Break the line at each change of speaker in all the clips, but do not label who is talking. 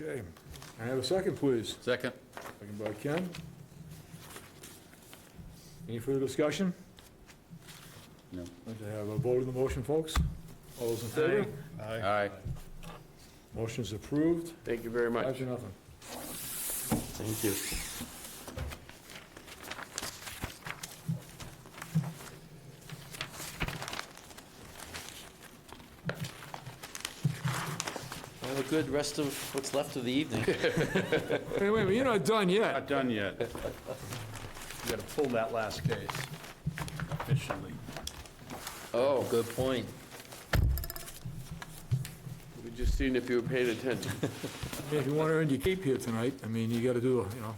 Okay, I have a second, please.
Second.
Second by Ken. Any further discussion?
No.
Like to have a vote on the motion, folks? All those in favor?
Aye.
Motion is approved,
Thank you very
five
much.
to nothing.
Thank you. Have a good rest of what's left of the evening.
Hey, wait, a minute, you're not done yet.
Not done yet.
You gotta pull that last case officially.
Oh, good point. We just seen if you were paying attention.
I mean, If you want to earn your keep here tonight, I mean, you got to do, you know.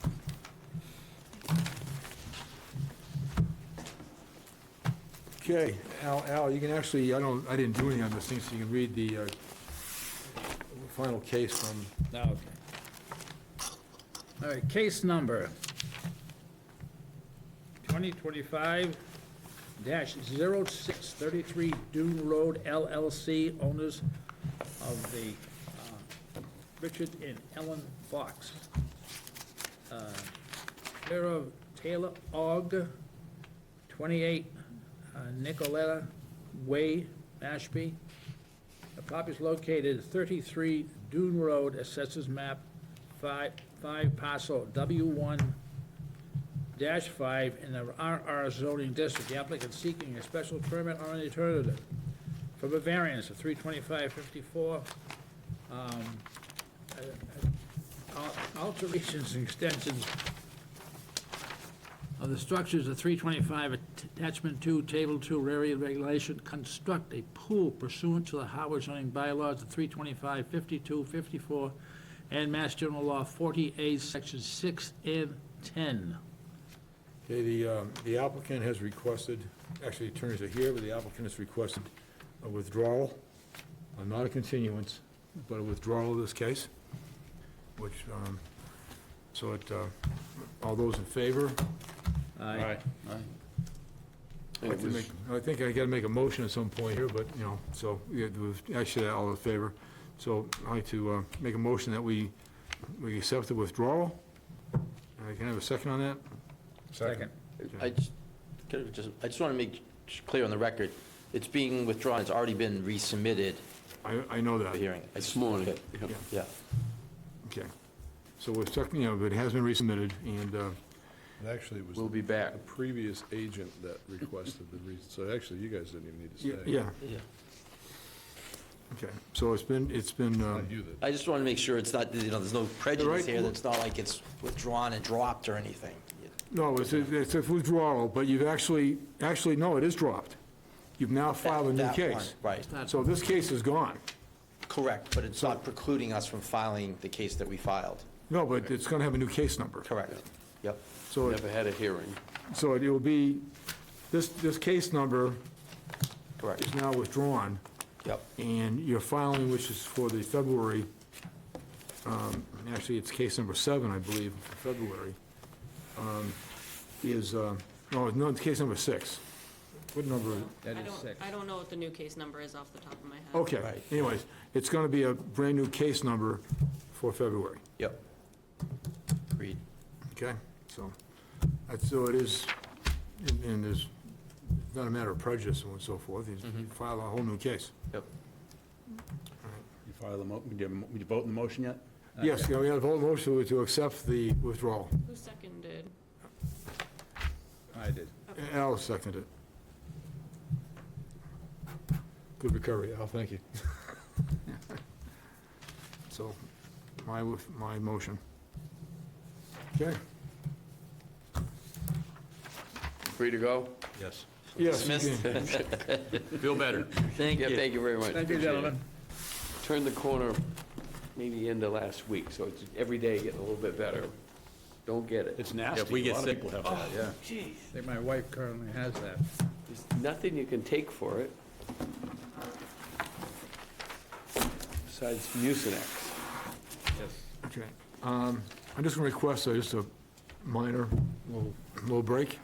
Okay, Al, Al, you can actually, I don't, I didn't do any on this thing, so you can read the uh, final case from
Okay. Oh, All right, case number 2025-0633 Dune Road LLC, owners of the uh, Richard and Ellen Fox. Uh, Sarah Taylor Ogg, 28 uh, Nicoletta Way, Mashpee. The property is located at 33 Dune Road, Assessors Map 5, 5 parcel W1-5 dash five in the RR zoning district. The applicant seeking a special permit or an alternative from a variance of 32554 um, uh, al- alterations and extensions of the structures of 325 attachment 2, table 2, rear area regulation, construct a pool pursuant to the Howard zoning bylaws of 325, 52, 54, and Mass General Law 40A, Section 6 and 10.
Okay, the, um, the applicant has requested, actually the attorneys are here, but the applicant has requested a withdrawal, uh, not a continuance, but a withdrawal of this case, which, um, so it, uh, all those in favor?
Aye.
And
I
it was-
think I gotta make a motion at some point here, but, you know, so, yeah, it was- actually, all in favor. So I'd like to uh, make a motion that we, we accept the withdrawal. Uh, Can I have a second on that?
Second.
I just, could I just, I just want to make clear on the record, it's being withdrawn, it's already been resubmitted
I, I know that.
for hearing. I
This
just-
morning. yeah.
Yeah.
Okay. So we're stuck, you know, but it has been resubmitted, and, uh,
And actually, it was
We'll be back.
the previous agent that requested the reason, so actually, you guys didn't even need to
yeah,
stay.
yeah,
Yeah.
okay. So it's been, it's been, um,
Not you that,
I just want to make sure it's not, you know, there's no prejudice
right.
here, that it's not like it's withdrawn and dropped or anything.
no, it's, a- it's a withdrawal, but you've actually, actually, no, it is dropped. You've now filed a new
That- that
case.
one, Right,
So this case is gone.
correct, but it's not precluding us from filing the case that we filed.
No, but it's gonna have a new case number.
Correct. Yep.
So, it-
Never had a hearing.
so it will be, this, this case number
Correct.
is now withdrawn,
Yep.
and your filing, which is for the February, um, actually, it's case number seven, I believe, for February, um, is, uh, no, no, it's case number six. What number?
That
I
is
don't,
six.
I don't know what the new case number is off the top of my head.
Okay,
Right.
anyways, it's going to be a brand-new case number for February,
Yep. Agreed.
okay? So, that's, so it is, and- and there's it's not a matter of prejudice and so forth, you file a whole new case.
Yep.
You file the mo, did you did you vote in the motion yet?
Yes, yeah, we have a whole motion to accept the withdrawal.
Who seconded?
I did.
Al seconded it. Good recovery, Al, thank you. So, my, wo- my motion. Okay,
Free to go?
Yes.
yes. you
Dismissed.
can.
Feel better.
Thank
Yeah,
you.
thank you very much.
Thank you,
Appreciate it.
gentlemen.
Turned the corner maybe end of last week, so it's every day getting a little bit better. Don't get it.
It's nasty.
If we get sick, Oh,
A lot of people have that, yeah.
I think my wife currently has that.
There's nothing you can take for it besides Mucinex.
Okay, um, I'm just gonna request, uh, just a minor, little, little break.